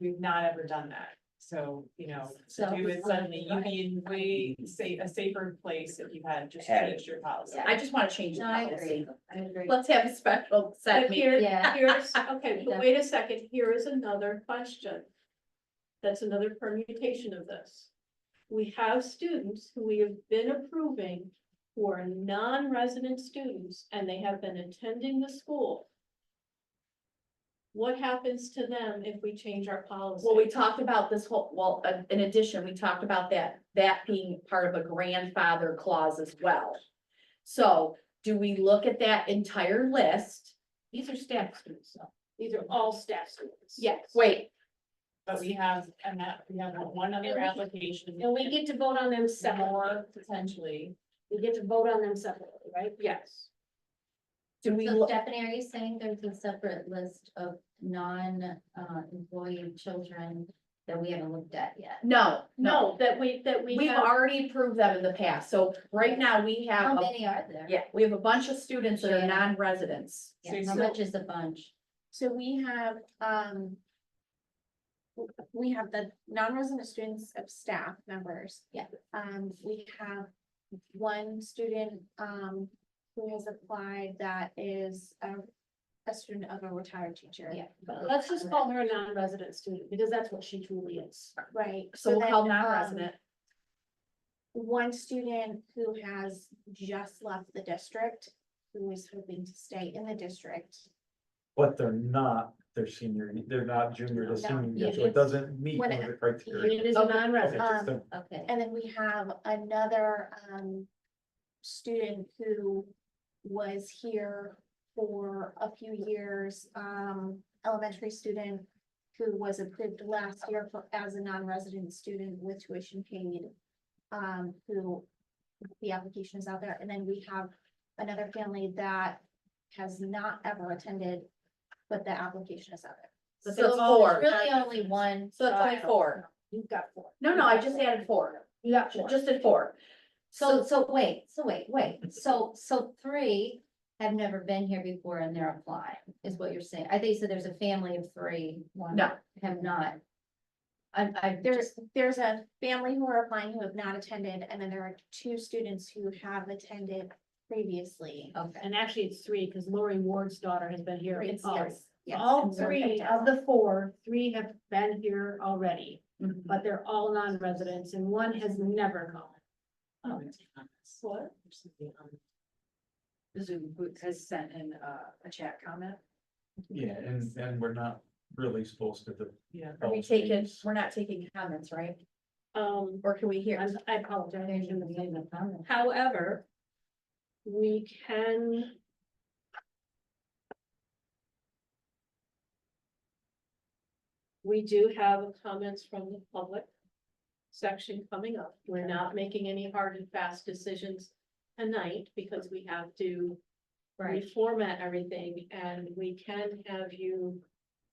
we've not ever done that. So, you know, So- we would suddenly, you'd be in way safe, a safer place if you had just Had it. changed your policy. I just wanna change the No, I policy. agree, I agree. Let's have a special set But meeting. here, Yeah. here's, okay, but wait a second, here is another question. That's another permutation of this. We have students who we have been approving who are non-resident students and they have been attending the school. What happens to them if we change our policy? Well, we talked about this whole, well, uh, in addition, we talked about that, that being part of a grandfather clause as well. So do we look at that entire list? These are staff students, so. These are all staff students. Yes, wait, But we have, and that, we have one And other we- application. And we get to vote on them separately, More potentially. we get to vote on them separately, right? yes. Do we, So look? Stephanie, are you saying there's a separate list of non-employee children that we haven't looked at yet? no, no, No, that we, that we we've have. already approved them in the past, so right now we How have, a- many are there? yeah, we have a bunch of students that are Yeah. non-residents. Yeah, How So- much is a bunch? So we have, um. w- We have the non-resident students of staff members. Yeah. Um, we have one student, um, who has applied that is a, a student of a retired teacher. Yeah. Let's just call her a non-resident student, because that's what she truly is. Right. So we'll then, call um, non-resident. One student who has just left the district, who is hoping to stay in the district. But they're not, they're senior, they're not junior to senior, year, so it doesn't meet When one of the criteria. It Oh, is a Okay. Okay, non-resident. just Um, the- Okay. And then we have another um student who was here for a few years, um elementary student who was approved last year for as a non-resident student with tuition paid. Um, who the application is out there, and then we have another family that has not ever attended, but the application is out there. So So it's it's all- four, it's really only one. so it's only four. You've got four. No, no, I just added four, You got four. just at four. So, so wait, so wait, wait, so, so three have never been here before and they're applying, is what you're saying. I think so there's a family of three. one No. Have not. I, I There's, just, there's a family who are applying who have not attended, and then there are two students who have attended previously. okay, And actually, it's three, because Lori Ward's daughter has been here. It's- all- yes, yes. All And so- three of the four, three have been here already, Mm-hmm. Mhm. but they're all non-residents and one has never gone. What? Zoom has sent in a, a chat comment. Yeah, and, and we're not really supposed to. do- Yeah. Are we taking, we're not taking comments, right? Um, Or can we hear? I'm- I apologize. I there's shouldn't have said no that. problem. However, we can. We do have comments from the public section coming up. We're not making any hard and fast decisions tonight because we have to Right, reformat everything and we can have you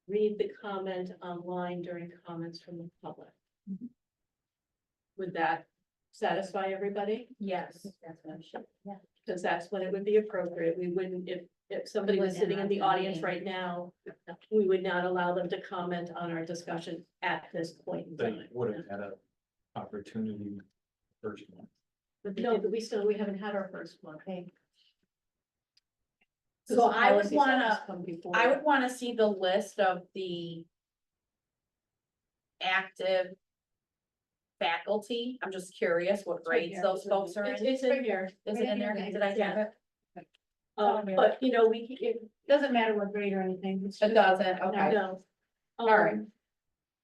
read the comment online during comments from the public. Would that satisfy everybody? Yes. that's what I'm sure, yeah. Because that's when it would be appropriate. We wouldn't, if, if somebody was Wouldn't sitting in the interrupt the audience meeting. right now, we would not allow them to comment on our discussion at this point in They time. would have had a opportunity first one. But no, but we still, we haven't had our first one. Okay. So I would Policies always wanna- come before. I would wanna see the list of the active faculty. I'm just curious what grades those folks are It's, in. Is it's in here. it in there? Did I have it? Um, but you know, we, it doesn't matter what grade or anything. it's It just- doesn't, okay. No. All Um, right.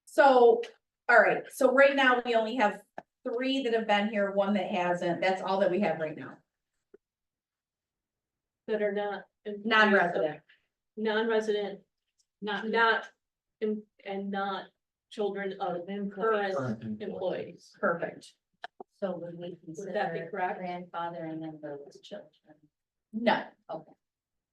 So, all right, so right now we only have three that have been here, one that hasn't. That's all that we have right now. That are not. employees of- Non-resident. Non-resident, not, not, em- and not children of current Current employee. employees. Perfect. So would we Would that be consider correct? grandfather and then those children? No, Okay.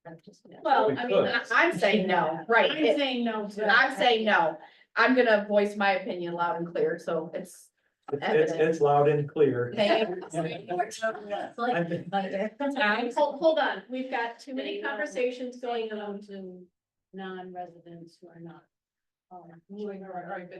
I'm just- Well, We I could. mean, I- I'm saying no, right. I'm saying no to. that. I'm saying no. I'm gonna voice my opinion loud and clear, so it's, It's, it's, it's loud and clear. thank you. It's like I think- lighter. Um, Hold, hold on, we've got too many Saying no. conversations going on. to non-residents who are not All right, all right, but